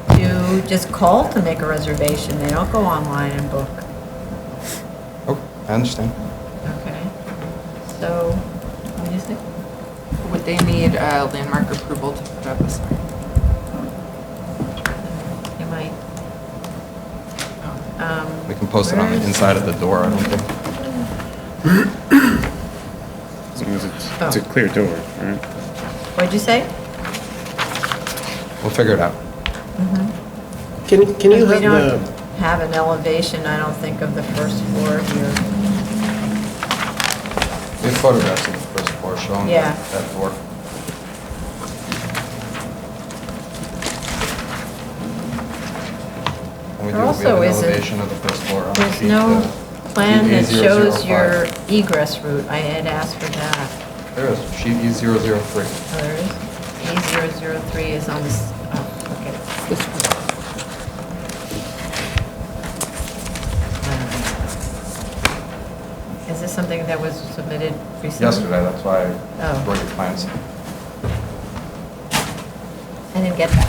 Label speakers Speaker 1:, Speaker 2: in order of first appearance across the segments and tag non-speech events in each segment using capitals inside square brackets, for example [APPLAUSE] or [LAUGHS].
Speaker 1: who just call to make a reservation. They don't go online and book.
Speaker 2: Okay, I understand.
Speaker 1: Okay. So, what do you think?
Speaker 3: Would they need uh, landmark approval to put up a sign?
Speaker 1: You might,
Speaker 3: No.
Speaker 1: um.
Speaker 2: We can post it on the
Speaker 1: where's-
Speaker 2: inside of the door, I don't think.
Speaker 4: As long as it's,
Speaker 1: Oh.
Speaker 4: it's a clear door, right?
Speaker 1: What'd you say?
Speaker 2: We'll figure it out.
Speaker 5: Can, can you
Speaker 1: We
Speaker 5: have
Speaker 1: don't
Speaker 5: the,
Speaker 1: have an elevation, I don't think, of the first floor here.
Speaker 2: We have photographs of the first floor showing
Speaker 1: Yeah.
Speaker 2: that that door. And
Speaker 1: There
Speaker 2: we do, we have
Speaker 1: also
Speaker 2: an
Speaker 1: isn't-
Speaker 2: elevation of the first floor on
Speaker 1: There's
Speaker 2: sheet,
Speaker 1: no
Speaker 2: uh,
Speaker 1: plan that
Speaker 2: sheet E005.
Speaker 1: shows your egress route. I had asked for that.
Speaker 2: There is, sheet E E003.
Speaker 1: Oh, there is? E003 is on this, oh, okay.
Speaker 3: This
Speaker 6: [LAUGHS]
Speaker 3: one.
Speaker 1: Um, Is this something that was submitted recently?
Speaker 2: Yesterday, that's why
Speaker 1: Oh.
Speaker 2: I brought your plans.
Speaker 1: I didn't get that.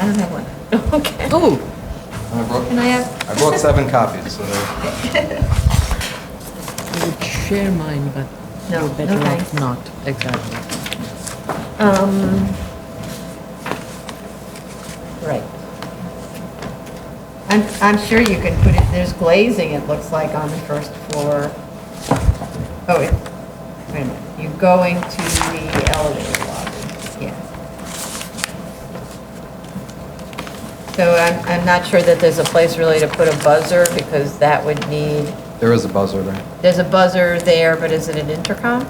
Speaker 1: I don't have one. [LAUGHS] Okay.
Speaker 3: Oh,
Speaker 2: And I brought,
Speaker 1: Can I have?
Speaker 2: I brought seven copies, so they're-
Speaker 1: [LAUGHS]
Speaker 6: I would share mine, but
Speaker 1: No,
Speaker 6: you're better
Speaker 1: no
Speaker 6: off
Speaker 1: thanks.
Speaker 6: not, exactly.
Speaker 1: Um, Right. I'm, I'm sure you can put it, there's glazing, it looks like, on the first floor. Oh, wait, wait a minute, you're going to the elevator lobby, yeah. So I'm, I'm not sure that there's a place really to put a buzzer, because that would need,
Speaker 2: there is a buzzer there.
Speaker 1: there's a buzzer there, but is it an intercom?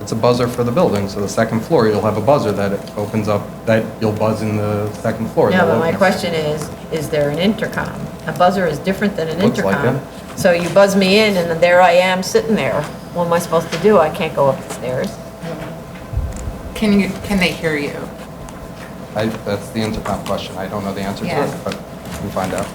Speaker 2: It's a buzzer for the building, so the second floor, you'll have a buzzer that it opens up, that you'll buzz in the second floor.
Speaker 1: No, but
Speaker 2: They'll
Speaker 1: my
Speaker 2: open-
Speaker 1: question is, is there an intercom? A buzzer is different than an
Speaker 2: Looks like
Speaker 1: intercom. So you buzz me in, and then there I am, sitting there. What am I supposed to do? I can't go up the stairs.
Speaker 3: can you, can they hear you?
Speaker 2: I, that's the intercom question. I don't know the answer to
Speaker 3: Yeah.
Speaker 2: it, but we'll find out.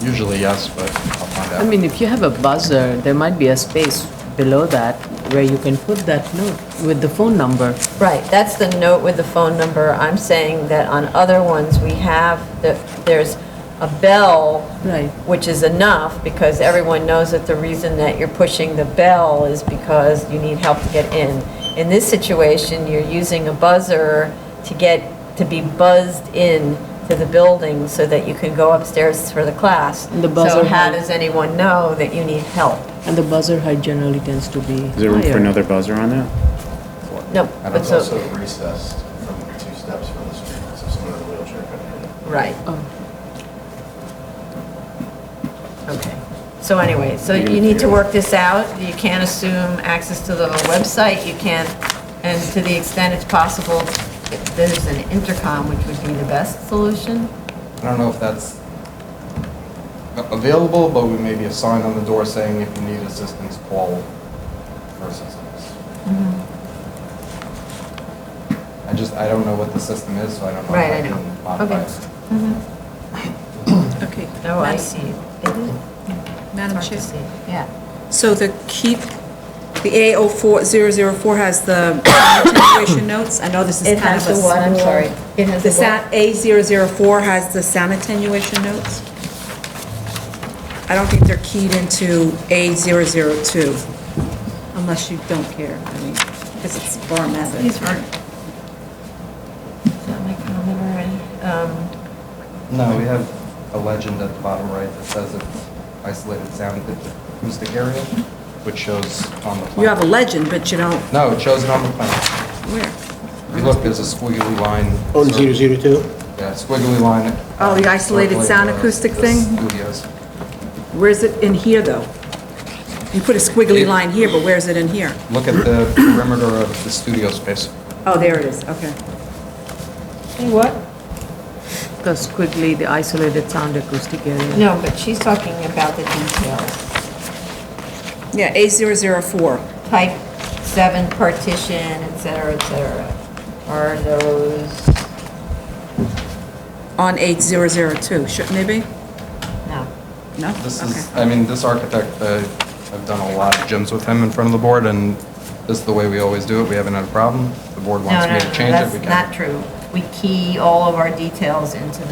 Speaker 2: Usually yes, but I'll find out.
Speaker 6: I mean, if you have a buzzer, there might be a space below that where you can put that note with the phone number.
Speaker 1: Right, that's the note with the phone number. I'm saying that on other ones, we have, the- there's a bell,
Speaker 6: Right.
Speaker 1: which is enough, because everyone knows that the reason that you're pushing the bell is because you need help to get in. In this situation, you're using a buzzer to get, to be buzzed in to the building so that you can go upstairs for the class.
Speaker 6: And the buzzer
Speaker 1: So how
Speaker 6: has-
Speaker 1: does anyone know that you need help?
Speaker 6: And the buzzer height generally tends to be
Speaker 4: Is there room for
Speaker 6: higher.
Speaker 4: another buzzer on that?
Speaker 1: No,
Speaker 2: And
Speaker 1: but
Speaker 7: It's
Speaker 1: so,
Speaker 7: also recessed from two steps from the street, so someone in a wheelchair could hit it.
Speaker 1: right,
Speaker 6: Oh,
Speaker 1: Okay. So anyway, so
Speaker 4: You're
Speaker 1: you
Speaker 4: gonna
Speaker 1: need to
Speaker 4: figure it
Speaker 1: work this out. You can't assume access to the website. You can't, and to the extent it's possible, if there's an intercom, which would be the best solution.
Speaker 2: I don't know if that's a- available, but we may be a sign on the door saying if you need assistance, call for assistance.
Speaker 1: Mm-hmm.
Speaker 2: I just, I don't know what the system is, so I don't know. if
Speaker 1: Right, I
Speaker 2: can
Speaker 1: know.
Speaker 2: modify
Speaker 1: Okay.
Speaker 2: it.
Speaker 8: Okay.
Speaker 1: Oh, I
Speaker 8: Madam-
Speaker 1: see.
Speaker 8: Madam
Speaker 1: Hard to
Speaker 8: Chair,
Speaker 1: see. Yeah.
Speaker 8: so the keep, the A04004 has the attenuation notes? I know this is
Speaker 1: It
Speaker 8: kind
Speaker 1: has
Speaker 8: of a
Speaker 1: the what, I'm
Speaker 8: small-
Speaker 1: sorry. It has
Speaker 8: The
Speaker 1: the what?
Speaker 8: sa- A004 has the sound attenuation notes? I don't think they're keyed into A002, unless you don't care, I mean, because it's bar method.
Speaker 1: These weren't. Not my comment already. Um,
Speaker 2: No, we have a legend at the bottom right that says it's isolated sound acoustic area, which shows on the plan.
Speaker 8: You have a legend, but you don't,
Speaker 2: No, it shows it on the plan.
Speaker 8: where?
Speaker 2: If you look, there's a squiggly line.
Speaker 5: on
Speaker 2: circle.
Speaker 5: Oh, zero zero two?
Speaker 2: Yeah, squiggly line.
Speaker 8: Oh, the
Speaker 2: um,
Speaker 8: isolated
Speaker 2: circling
Speaker 8: sound
Speaker 2: the-
Speaker 8: acoustic
Speaker 2: the
Speaker 8: thing?
Speaker 2: Studios.
Speaker 8: Where's it in here, though? You put a squiggly line here, but where's it in here?
Speaker 2: Look at the perimeter of the studio space.
Speaker 8: Oh, there it is, okay.
Speaker 1: What?
Speaker 6: because quickly, the isolated sound acoustic area.
Speaker 1: No, but she's talking about the details.
Speaker 8: Yeah, A004.
Speaker 1: Type seven partition, et cetera, et cetera. Are those,
Speaker 8: On 8002, shouldn't it be?
Speaker 1: no.
Speaker 8: No?
Speaker 2: This is,
Speaker 8: Okay.
Speaker 2: I mean, this architect, uh, I've done a lot of gyms with him in front of the board, and this is the way we always do it. We haven't had a problem. The board
Speaker 1: No,
Speaker 2: wants
Speaker 1: no,
Speaker 2: me
Speaker 1: no,
Speaker 2: to change it, we
Speaker 1: that's
Speaker 2: can.
Speaker 1: not true. We key all of our details into the